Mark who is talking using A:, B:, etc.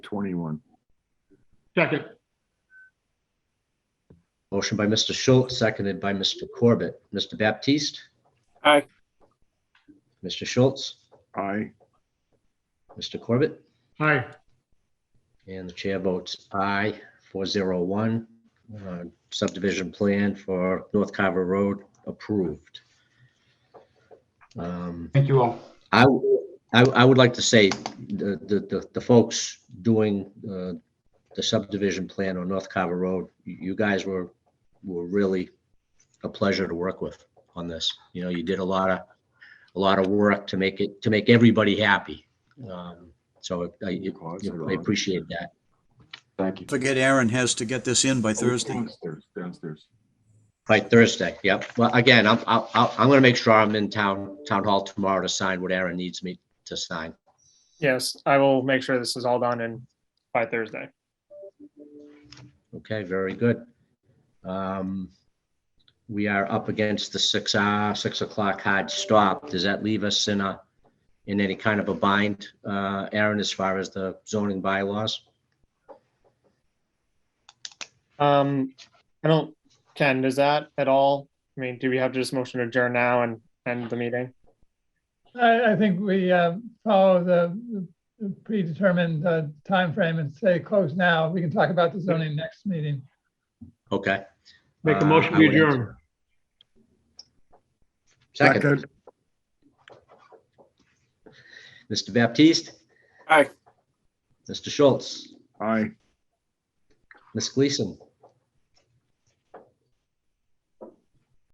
A: 21.
B: Second,
C: Motion by Mr. Schultz, seconded by Mr. Corbett. Mr. Baptiste?
D: Aye.
C: Mr. Schultz?
A: Aye.
C: Mr. Corbett?
B: aye,
C: And the chair votes aye, 401. Uh, Subdivision plan for North Carver Road approved. Um,
D: Thank you all.
C: I, I, I would like to say the, the, the- the folks doing uh, the subdivision plan on North Carver Road, you you guys were, were really a pleasure to work with on this. You know, you did a lot of, a lot of work to make it, to make everybody happy. Um, So I, it-
A: Cause
C: yeah,
A: it
C: I
A: on.
C: appreciate that.
D: Thank you.
E: Forget Aaron has to get this in by Thursday.
A: Downstairs, Downstairs.
C: By Thursday, yep. Well, again, I'm, I'll, I'll- I'm gonna make sure I'm in town, town hall tomorrow to sign what Aaron needs me to sign.
F: Yes, I will make sure this is all done in by Thursday.
C: Okay, very good. Um, We are up against the six hour, six o'clock hard stop. Does that leave us in a, in any kind of a bind, uh, Aaron, as far as the zoning bylaws?
F: Um, I don't, Ken, does that at all? I mean, do we have to just motion to adjourn now and end the meeting?
G: I, I think we uh, follow the the predetermined uh, timeframe and say close now. We can talk about the zoning next meeting.
C: Okay.
B: make a
C: Uh,
B: motion
C: I
B: to
C: would enter-
B: adjourn.
C: Second, Mr. Baptiste?
D: Aye.
C: Mr. Schultz?
A: Aye.
C: Ms. Gleason?